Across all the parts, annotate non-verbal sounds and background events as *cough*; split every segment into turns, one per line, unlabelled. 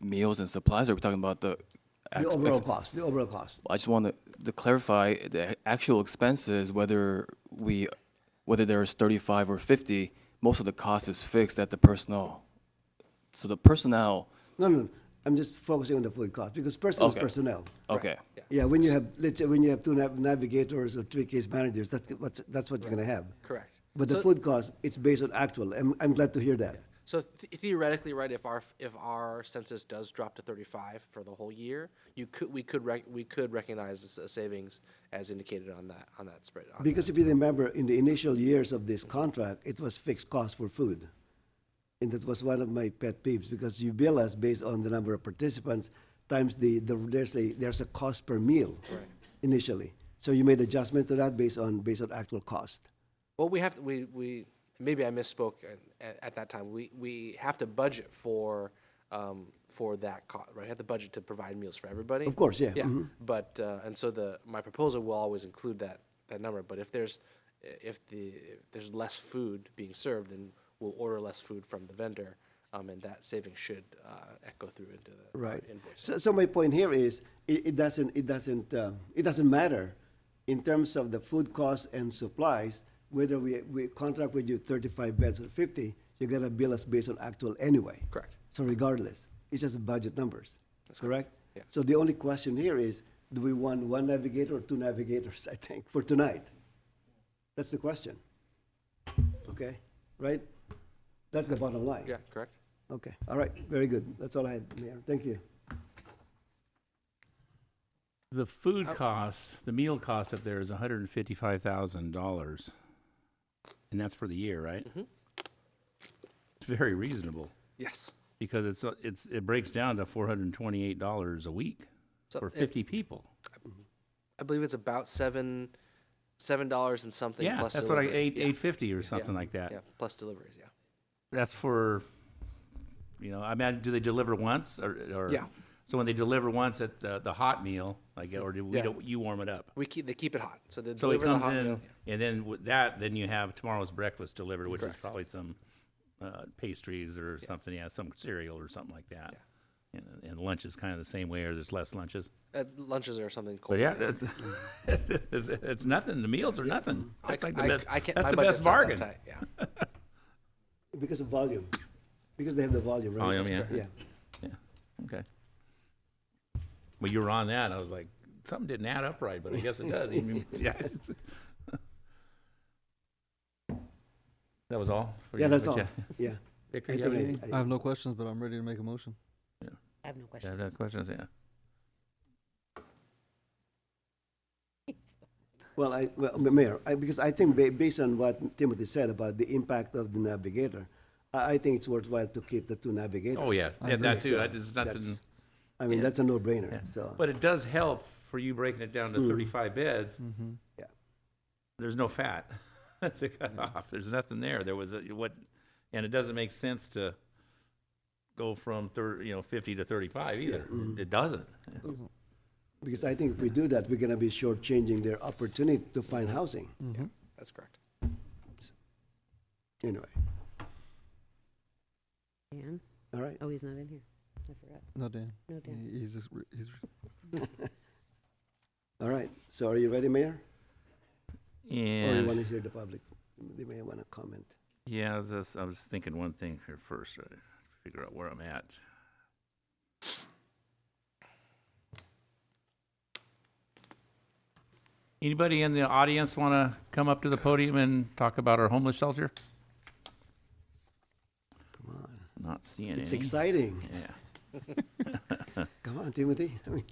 meals and supplies, or are we talking about the?
The
ex-
overall
ex-
cost, the overall cost.
I just want to- to clarify the actual expenses, whether we, whether there's 35 or 50, most of the cost is fixed at the personnel. So the personnel,
No, no, I'm just focusing on the food cost because personnel
Okay.
is personnel.
okay.
Yeah, when you have, let's say, when you have two nav- navigators or three case managers, that's what's, that's what you're gonna have.
Correct.
But the
So-
food cost, it's based on actual. I'm, I'm glad to hear that.
So th- theoretically, right, if our if our census does drop to 35 for the whole year, you could we could rec- we could recognize this as savings as indicated on that on that spread. On
Because if you remember, in the initial years of this contract, it was fixed cost for food. And that was one of my pet peeves because you bill us based on the number of participants times the, the there's a there's a cost per meal initially. So you made adjustment to that based on based on actual cost.
Well, we have to, we we maybe I misspoke at, at that time. We we have to budget for um, for that cost, right? We have to budget to provide meals for everybody.
Of course, yeah, Mm-hmm.
Yeah. But uh, and so the my proposal will always include that that number. But if there's if the if there's less food being served, then we'll order less food from the vendor, um, and that saving should uh, echo through into the
Right.
invoice.
So, so my point here is, it, it doesn't, it doesn't, uh, it doesn't matter in terms of the food costs and supplies, whether we, we contract with you thirty-five beds or fifty, you're gonna bill us based on actual anyway.
Correct.
So regardless, it's just budget numbers, correct?
Yeah.
So the only question here is, do we want one navigator or two navigators, *laughs* I think, for tonight? That's the question. Okay, right? That's the bottom line.
Yeah. Correct.
Okay, all right, very good. That's all I had, Mayor. Thank you.
The food
Oh.
cost, the meal cost up there is hundred and fifty-five thousand dollars, and that's for the year, right?
Mm-hmm.
It's very reasonable
Yes.
because it's uh, it's it breaks down to four hundred and twenty-eight dollars a week
So
for
it-
fifty people.
I believe it's about seven seven dollars and something.
Yeah,
plus
that's what I
delivery.
eight
Yeah,
eight fifty or
yeah,
something like that.
Yeah. Plus deliveries. Yeah.
That's for, you know, I mean, do they deliver once or or?
Yeah.
So when they deliver once at the the hot meal, like, or do we
Yeah.
don't you warm it up?
We keep they keep it hot, so they
So it
deliver the
comes
hot meal.
in, and then with that, then you have tomorrow's breakfast delivered, which is probably some uh, pastries or something, yeah, some cereal or something like that. And, and lunch is kind of the same way, or there's less lunches.
Uh, lunches are something cold.
But yeah, that's, it's, *laughs* it's nothing. The meals are nothing.
I,
That's like the
I,
best.
I can't,
that's
my
the
budget's
best
not that
bargain.
tight, Yeah.
Because of volume, because they have the volume, right?
Volume, yeah.
Yeah.
Okay. Well, you were on that. I was like, something didn't add up right, but I guess it
*laughs*
does. I *laughs* mean, yeah. it's- That was all. for
Yeah,
you?
that's all.
Okay.
Yeah.
Victor,
I
you have
think-
anything?
I-
I have no questions, but I'm ready to make a motion.
I have no
Yeah,
questions.
that's questions, yeah.
Well, I, well, Ma- Mayor, I, because I think ba- based on what Timothy said about the impact of the navigator, I, I think it's worthwhile to keep the two navigators.
Oh, yes,
I
yeah, that
agree.
too,
So
I just, nothing,
that's- I mean, that's a
yeah.
no-brainer, so.
but it does help for you breaking it down to
Mm.
thirty-five beds.
Mm-hmm.
Yeah.
There's no fat, *laughs* that's a cutoff, there's nothing there, there was, a what, and it doesn't make sense to go from thir, you know, fifty to thirty-five either, it doesn't.
Mm-hmm. Because I think if we do that, we're gonna be shortchanging their opportunity to find housing,
Mm-hmm.
That's correct.
anyway.
Dan?
All right, *laughs*
Oh, he's not in here. I forgot.
No, Dan.
No, Dan.
He- He's just, re- he's
all right. So are you ready, Mayor? Or you wanna
And,
hear the public? They may wanna comment.
yeah, I was, just- I was thinking one thing here first, uh, figure out where I'm at. Anybody in the audience want to come up to the podium and talk about our homeless shelter?
Come on.
Not seeing any.
It's exciting.
Yeah.
Come on, Timothy. I mean,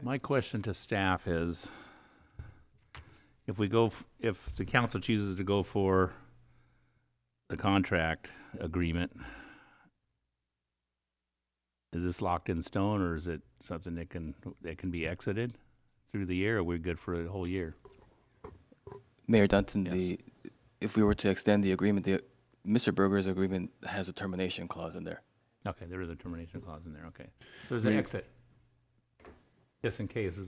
My question to staff is, if we go, f- if the council chooses to go for the contract agreement, is this locked in stone, or is it something that can, that can be exited through the year, or we're good for a whole year?
Mayor Dunton,
Yes.
the, if we were to extend the agreement, the, Mr. Berger's agreement has a termination clause in there.
Okay, there is a termination clause in there, okay. So there's an
We-
exit. Just in case, there's